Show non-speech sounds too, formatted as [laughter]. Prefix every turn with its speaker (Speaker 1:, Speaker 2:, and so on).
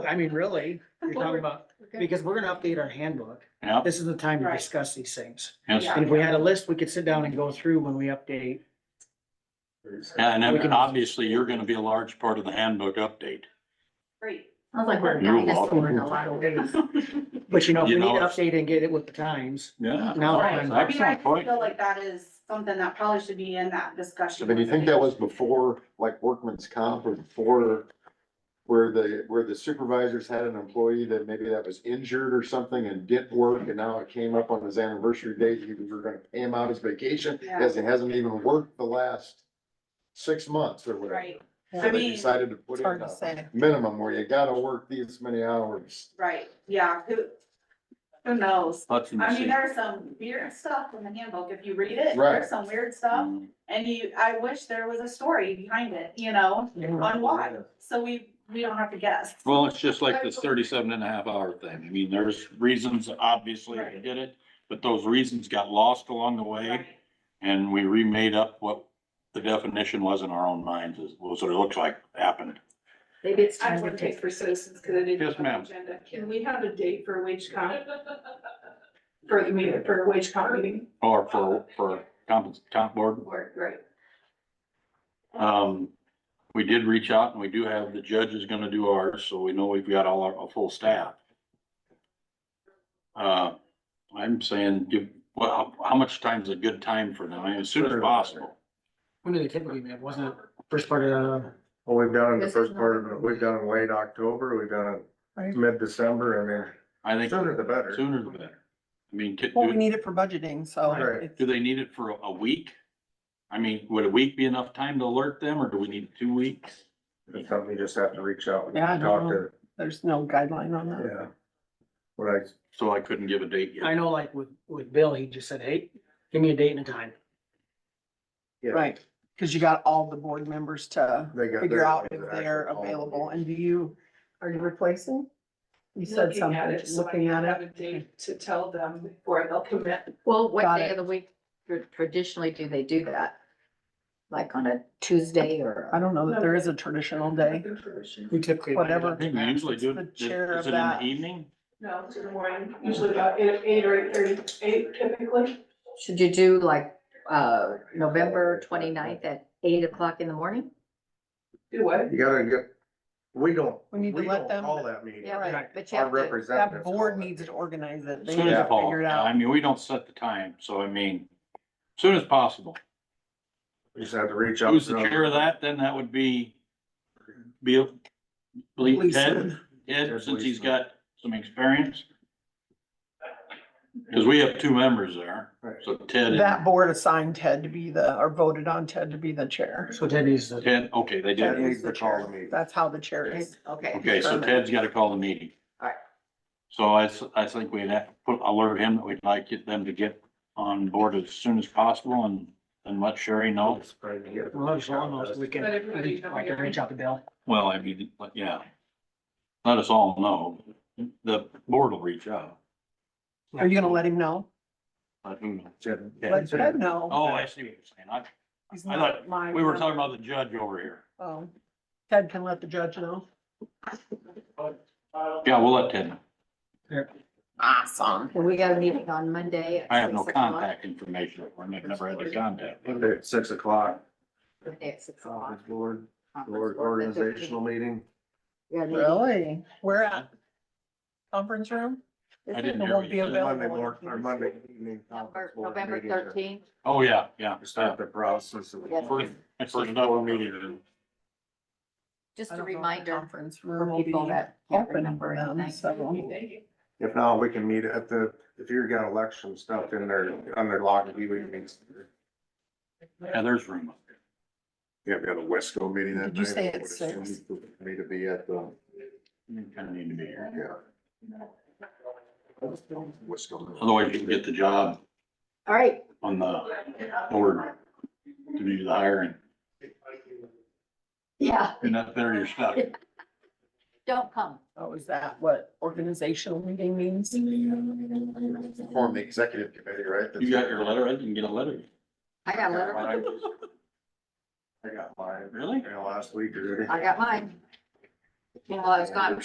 Speaker 1: I mean, really, you're talking about, because we're gonna update our handbook.
Speaker 2: Yep,
Speaker 1: This is the time to
Speaker 3: Right.
Speaker 1: discuss these things.
Speaker 2: yes.
Speaker 3: Yeah.
Speaker 1: And if we had a list, we could sit down and go through when we update.
Speaker 2: Yeah, and
Speaker 1: We can-
Speaker 2: then obviously you're gonna be a large part of the handbook update.
Speaker 3: Great.
Speaker 4: Sounds like we're a
Speaker 2: You're
Speaker 4: dinosaur in a
Speaker 2: welcome.
Speaker 4: lot of ways.
Speaker 1: [laughs] But you know, if we
Speaker 2: You
Speaker 1: need to
Speaker 2: know-
Speaker 1: update and get it with the times.
Speaker 2: Yeah.
Speaker 1: Now,
Speaker 3: Right.
Speaker 1: I'm-
Speaker 3: I mean, I
Speaker 2: Oh, Excellent point.
Speaker 3: feel like that is something that probably should be in that
Speaker 5: So
Speaker 3: discussion.
Speaker 5: then you think that was before, like workman's comp or before, where the, where the supervisors had an employee that maybe that was injured or something and didn't work and now it came up on his anniversary date, you were gonna pay him out his vacation, as he hasn't even worked the last six months or whatever.
Speaker 3: Right.
Speaker 5: So
Speaker 3: I
Speaker 5: they
Speaker 3: mean-
Speaker 5: Decided to put in
Speaker 6: hard to
Speaker 5: a
Speaker 6: say.
Speaker 5: minimum where you gotta work these many hours.
Speaker 3: Right, yeah, who, who knows?
Speaker 2: Hudson,
Speaker 3: I mean,
Speaker 2: see.
Speaker 3: there's some weird stuff in the handbook. If you read it,
Speaker 5: Right. Mm.
Speaker 3: there's some weird stuff. And you, I wish there was a story behind it, you know, on why. So we, we don't have to guess.
Speaker 2: Well, it's just like this 37 and a half hour thing. I mean, there's reasons, obviously, I
Speaker 3: Right.
Speaker 2: did it, but those reasons got lost along the way.
Speaker 3: Right.
Speaker 2: And we remade up what the definition was in our own minds, is was what it looks like happened.
Speaker 4: Maybe it's
Speaker 7: I
Speaker 4: time to
Speaker 7: would take
Speaker 4: take.
Speaker 7: for citizens, cause I didn't.
Speaker 2: Yes,
Speaker 7: have an
Speaker 2: ma'am.
Speaker 7: agenda. Can we have a date for wage comp? For the meeting, for wage comp meeting,
Speaker 2: Or for, for comp, comp board.
Speaker 7: or, right?
Speaker 2: Um, we did reach out and we do have, the judge is gonna do ours, so we know we've got all our, a full staff. Uh, I'm saying, give, well, how, how much time's a good time for them? I mean, as soon as possible.
Speaker 1: When did they typically meet? Wasn't it first part of, the-
Speaker 8: Well, we've done it in the
Speaker 4: This is
Speaker 8: first part of
Speaker 4: November.
Speaker 8: it, we've done it late October, we've done
Speaker 6: Right.
Speaker 8: it mid-December,
Speaker 2: I
Speaker 8: I mean,
Speaker 2: think
Speaker 8: sooner the better.
Speaker 2: sooner the better. I mean, could,
Speaker 6: Well, we
Speaker 2: do,
Speaker 6: need it for budgeting, so
Speaker 8: Right.
Speaker 6: it's
Speaker 2: do they need it for a- a week? I mean, would a week be enough time to alert them, or do we need two weeks?
Speaker 8: It's something you just have to reach out and
Speaker 6: Yeah, I
Speaker 8: talk
Speaker 6: know.
Speaker 8: to,
Speaker 6: there's no guideline on that.
Speaker 8: yeah. What I,
Speaker 2: So I couldn't give a date
Speaker 1: I
Speaker 2: yet.
Speaker 1: know like with, with Bill, he just said, hey, give me a date and a time.
Speaker 8: yeah.
Speaker 6: Right, because you got all the board members to
Speaker 8: They got.
Speaker 6: figure
Speaker 8: their-
Speaker 6: out if they're
Speaker 8: all-
Speaker 6: available. And do you, are you replacing? You said
Speaker 7: Looking
Speaker 6: something,
Speaker 7: at it, so I
Speaker 6: looking at
Speaker 7: have a
Speaker 6: it.
Speaker 7: date to tell them before they'll commit.
Speaker 4: Well, what
Speaker 6: Got
Speaker 4: day
Speaker 6: it.
Speaker 4: of the week tr- traditionally do they do that? Like on a Tuesday or?
Speaker 6: I don't know that there is a traditional day.
Speaker 1: We typically.
Speaker 2: I
Speaker 6: Whatever.
Speaker 2: think we usually do
Speaker 6: The
Speaker 2: it, is
Speaker 6: chair
Speaker 2: is
Speaker 6: of
Speaker 2: it in the
Speaker 6: that.
Speaker 2: evening?
Speaker 7: No, to the morning, usually about eight, eight or eight thirty, eight typically.
Speaker 4: Should you do like, uh, November twenty-ninth at eight o'clock in the morning?
Speaker 7: Do what?
Speaker 8: You gotta get, we don't,
Speaker 6: We
Speaker 8: we
Speaker 6: need to let
Speaker 8: don't
Speaker 6: them,
Speaker 8: call that meeting.
Speaker 4: Yeah, right,
Speaker 1: Right.
Speaker 4: but you
Speaker 8: Our
Speaker 4: have to,
Speaker 8: representatives.
Speaker 6: that
Speaker 8: call
Speaker 6: board
Speaker 8: it.
Speaker 6: needs to organize it. They
Speaker 2: Soon
Speaker 6: need
Speaker 2: as
Speaker 6: to
Speaker 2: possible.
Speaker 6: figure it
Speaker 2: I
Speaker 6: out.
Speaker 2: mean, we don't set the time, so I mean, soon as possible.
Speaker 8: You just have to reach out.
Speaker 2: Who's the
Speaker 8: to them.
Speaker 2: chair of that? Then that would be Bill, believe Ted,
Speaker 6: Leeson.
Speaker 2: Ted,
Speaker 8: Ted
Speaker 2: since he's
Speaker 8: Leeson.
Speaker 2: got some experience. Cause we have two members there,
Speaker 8: Right.
Speaker 2: so Ted
Speaker 6: That
Speaker 2: and
Speaker 6: board assigned Ted to be the, or voted on Ted to be the chair.
Speaker 1: So Ted needs to,
Speaker 2: Ted, okay, they
Speaker 8: Ted
Speaker 2: did.
Speaker 8: needs to call the meeting.
Speaker 6: That's how the chair is.
Speaker 4: okay.
Speaker 2: Okay, so Ted's gotta call the meeting.
Speaker 4: Alright.
Speaker 2: So I, s- I think we'd have to put, alert him that we'd like it- them to get on board as soon as possible and, and let Sherry know.
Speaker 1: well, it's almost, we can,
Speaker 7: But if we
Speaker 1: I think, I can reach out to Bill.
Speaker 2: Well, I mean, but yeah. Let us all know. The board will reach out.
Speaker 6: Are you gonna let him know?
Speaker 2: Let who know.
Speaker 8: Ted-
Speaker 6: Let Ted know.
Speaker 2: Oh, I see what you're saying.
Speaker 6: He's
Speaker 2: I
Speaker 6: not my
Speaker 2: I, we were
Speaker 6: rep.
Speaker 2: talking about the judge over here.
Speaker 6: Oh, Ted can let the judge know.
Speaker 2: Yeah, we'll let Ted know.
Speaker 6: Awesome.
Speaker 4: And we got a meeting on Monday. at
Speaker 2: I have no
Speaker 4: six o'clock.
Speaker 2: contact information. I've never had the contact.
Speaker 8: Monday at Six o'clock,
Speaker 4: Monday at six o'clock.
Speaker 8: conference board,
Speaker 4: Conference
Speaker 8: board
Speaker 4: board, the 13th.
Speaker 8: organizational meeting.
Speaker 4: We got a meeting.
Speaker 6: Really? Where at? Conference room?
Speaker 2: I
Speaker 6: This
Speaker 2: didn't
Speaker 6: one
Speaker 2: hear
Speaker 6: won't
Speaker 2: what
Speaker 6: be
Speaker 2: you said.
Speaker 8: Monday
Speaker 6: available.
Speaker 8: morning, or Monday evening.
Speaker 4: November-
Speaker 8: conference board
Speaker 4: November
Speaker 8: meeting to-
Speaker 4: thirteenth,
Speaker 2: Oh, yeah, yeah.
Speaker 8: to Start the process. of-
Speaker 4: Yeah.
Speaker 2: First- first
Speaker 8: board
Speaker 2: meeting.
Speaker 4: just
Speaker 6: I
Speaker 4: a
Speaker 6: don't know if the
Speaker 4: reminder
Speaker 6: Conference
Speaker 4: for
Speaker 6: room will be
Speaker 4: people that can't
Speaker 6: open
Speaker 4: remember
Speaker 6: for them, so.
Speaker 4: anything.
Speaker 8: If not, we can meet at the, if you've got election stuff in there, under lock and key, we can meet.
Speaker 2: Yeah, there's room up there.
Speaker 8: Yeah, we got a Wesco meeting that
Speaker 6: Did you
Speaker 8: night.
Speaker 6: say
Speaker 8: I
Speaker 6: it's
Speaker 8: would assume
Speaker 6: six?
Speaker 8: Me to be at the,
Speaker 2: You kind of need to be here.
Speaker 8: yeah. Wesco.
Speaker 2: Otherwise you can get the job
Speaker 4: all right,
Speaker 2: on the board to do the hiring.
Speaker 4: yeah,
Speaker 2: You're not there, you're stuck.
Speaker 4: don't come.
Speaker 6: Oh, is that what organizational meeting means?
Speaker 5: Form the executive committee, right?
Speaker 2: You got your letter, I didn't get a letter.
Speaker 4: I got a letter,
Speaker 2: [laughs]
Speaker 8: I got mine,
Speaker 2: Really?
Speaker 8: you know, last week or.
Speaker 4: I got mine. Well, it's not